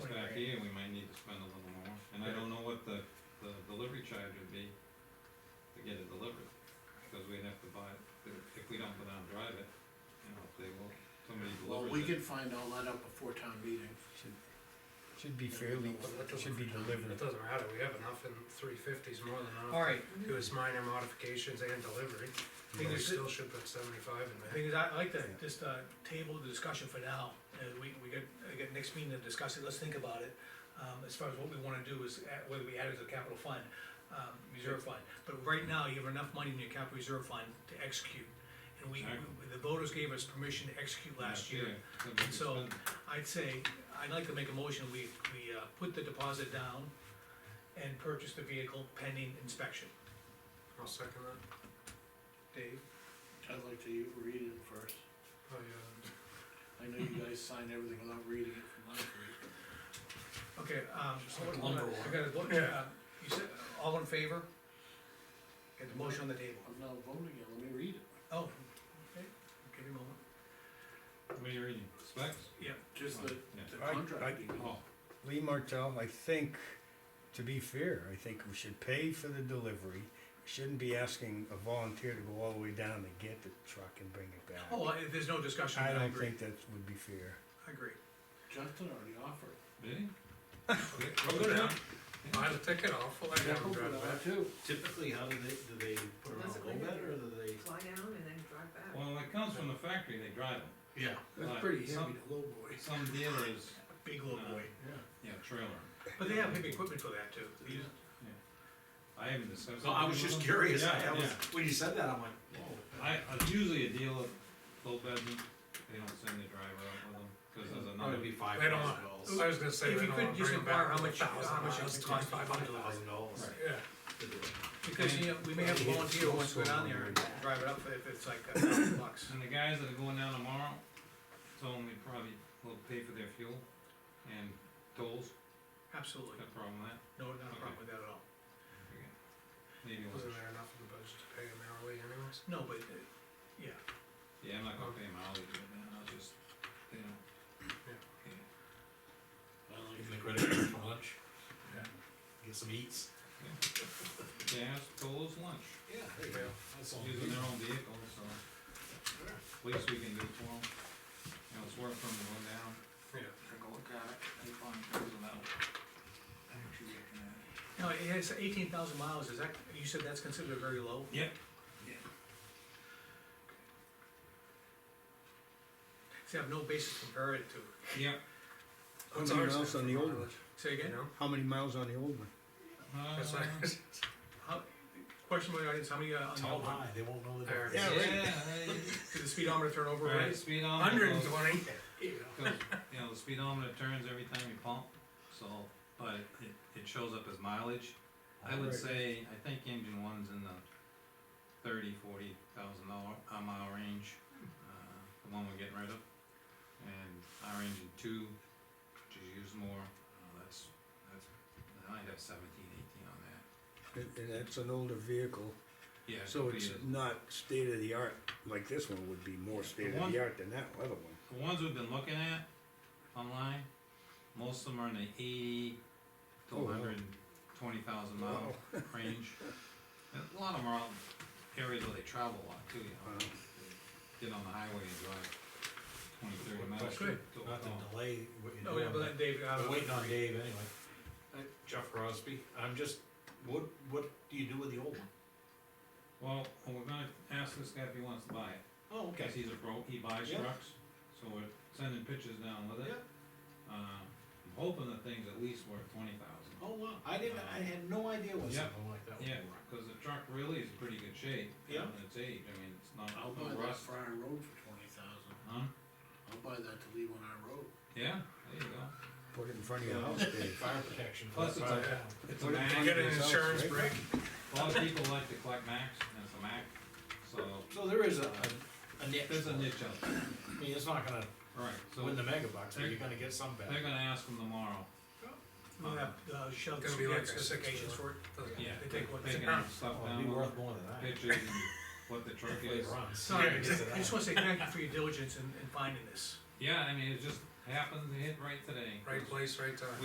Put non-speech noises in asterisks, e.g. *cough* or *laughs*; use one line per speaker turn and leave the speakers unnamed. to get it delivered, because we'd have to buy, it if we don't go down and drive it, you know, if they will, somebody
Well,
delivers
we
it.
can find all that out before town meeting.
Should be fairly, should be
It
delivered.
doesn't matter, we have enough in three fifties, more than enough.
All right,
It was minor modifications and delivery, but
Yeah.
we still should put seventy-five in there.
thing is, I like to just, uh, table the discussion for now, and we, we get, I get next meeting to discuss it, let's think about it. Um, as far as what we wanna do is, add- whether we add it to the capital fund, um, reserve fund, but right now, you have enough money in your capital reserve fund to execute. And we,
Exactly.
the voters gave us permission to execute last year,
it's gonna be
And so-
expensive.
I'd say, I'd like to make a motion, we, we, uh, put the deposit down and purchase the vehicle pending inspection.
I'll second that.
Dave?
I'd like to u- read it first.
Oh, yeah.
I know you guys sign everything without reading it from last week.
Okay, um, so what,
lumber
I got a vote, uh, you said, all in favor? Get the motion on the table.
I'm not voting yet, let me read it.
Oh, okay, give me a moment.
What are you reading, specs?
Yeah,
Just the,
Yeah.
the
I- I-
contract. detail.
Oh,
Lee Martell, I think, to be fair, I think we should pay for the delivery. We Shouldn't be asking a volunteer to go all the way down to get the truck and bring it back.
oh, I- there's no discussion,
I
I
don't
agree,
think that would be fair.
I agree.
Justin already offered.
did he?
I'll
Okay,
go down,
okay.
buy the ticket off, I'll let you
Yeah,
drive
but I
back.
Too.
Typically, how do they, do they put it on
Does it
a go
really
bed
do
or do they?
fly down and then drive back.
Well, when it comes from the factory, they drive them.
Yeah.
Like,
That's pretty heavy,
some-
the low boy.
Some dealers,
Big little boy,
yeah, trailer.
Uh, but they have heavy equipment for that too. They use-
I haven't discussed.
No, I was just curious,
Yeah,
I I was,
yeah.
when you said that, I'm like, whoa.
I, it's usually a deal of full bedroom, they don't send the driver out with them, cause there's another,
Probably be five
They don't
thousand
want-
dollars.
I was gonna say,
If
they
you
don't
could
wanna
just
bring them back.
inquire how
for
much-
$1,000
how much it
miles.
would cost by bundle.
Thousand dollars.
Right.
Yeah,
to do it.
Because, you know, we may have a volunteer who wants to go down there and drive it up if it's like a thousand bucks.
and the guys that are going down tomorrow, tell them they probably will pay for their fuel and tolls,
Absolutely,
no problem with that.
no, not a problem with that at all.
Okay. Maybe, we'll-
wasn't there enough in the budget to pay them hourly anyways?
No, but, uh, yeah,
yeah, I'm not gonna pay them hourly, but then I'll just, you know. Yeah.
I like it.
Give them the credit card for lunch. Get some eats.
Gas, tolls, lunch,
Yeah, there you go. That's all.
using their own vehicle, so, least we can do for them. You know, it's work from the one down.
Yeah.
Take a look at it, they find things about, actually, uh,
no, it has eighteen thousand miles, is that, you said that's considered very low?
Yep.
See, I have no basis to compare it to,
Yeah,
How
What's
many
ours
miles
then
on the
for
old one?
mileage?
say
You
again?
know?
How many miles on the old one?
uh,
That's like,
*laughs*
How, question by the audience, how many, uh, on the
Tell
old
them
one,
hi, they won't know that.
*laughs*
There.
yeah,
Yeah,
hey,
did the speedometer turn over
right,
right?
speedometer.
Hundred and
goes-
twenty.
goes- You know, the speedometer turns every time you pump, so, but it, it shows up as mileage. I would
Right.
say, I think engine one's in the thirty, forty thousand dollar, uh, mile range, uh, the one we're getting rid of. And our engine two, which is used more, uh, that's, that's, I might have seventeen, eighteen on that.
And and that's an older vehicle,
Yeah. it
so
could be
it's
a-
not state of the art, like this one would be more state of
one-
the art than that other one.
The ones we've been looking at online, most of them are in the eighty to
Oh, wow.
hundred and twenty thousand mile *laughs* range. And a lot of them are out in areas where they travel a lot too, you know,
Wow.
They get on the highway and drive twenty, thirty
One
miles.
question,
to-
Not
oh,
to delay what you're
Oh, yeah,
doing.
but
but-
that Dave, uh,
We're waiting on Dave anyway. Jeff Crosby, I'm just, what, what do you do with the old one?
Well, well, we're gonna ask this guy if he wants to buy it,
Oh,
cause he's a pro, he buys
Yeah.
trucks, so we're sending pictures down with it.
Yeah.
Uh, I'm hoping the thing's at least worth twenty thousand.
Oh, wow, I didn't, I had no idea what
Yeah.
something like that was.
Yeah, cause the truck really is in pretty good shape.
Yeah.
and It's age, I mean, it's not,
I'll
no
buy that
rust.
Friar Road for twenty thousand.
Huh?
I'll buy that to leave on our road.
Yeah, there you go.
Put it in front of your house, Dave.
Fire protection. for
Plus
the
it's
fire
a-
town.
It's a
What if
Mac,
you
Get an
Yourself,
insurance
right?
break.
a lot of people like to collect Macs, and it's a Mac, so
So there is a, a niche.
there's a
for it.
niche out there.
I mean, it's not gonna
Alright, so
win the mega bucks, but
They're-
you're gonna get some back.
they're gonna ask them tomorrow.
we'll have, uh, Sheldon,
Gonna be like a
specifications
six
for it,
Doesn't-
Yeah,
They
they
take what
they
they
can
have.
have stuff
Oh, it'd be
down,
worth more than that.
pictures and what the truck
Hopefully
is.
it runs.
sorry,
Yeah,
I
*laughs* it's
just
that.
I just wanna say thank you for your diligence in, in finding this.
Yeah, I mean, it just happened to hit right today.
Right place, right time.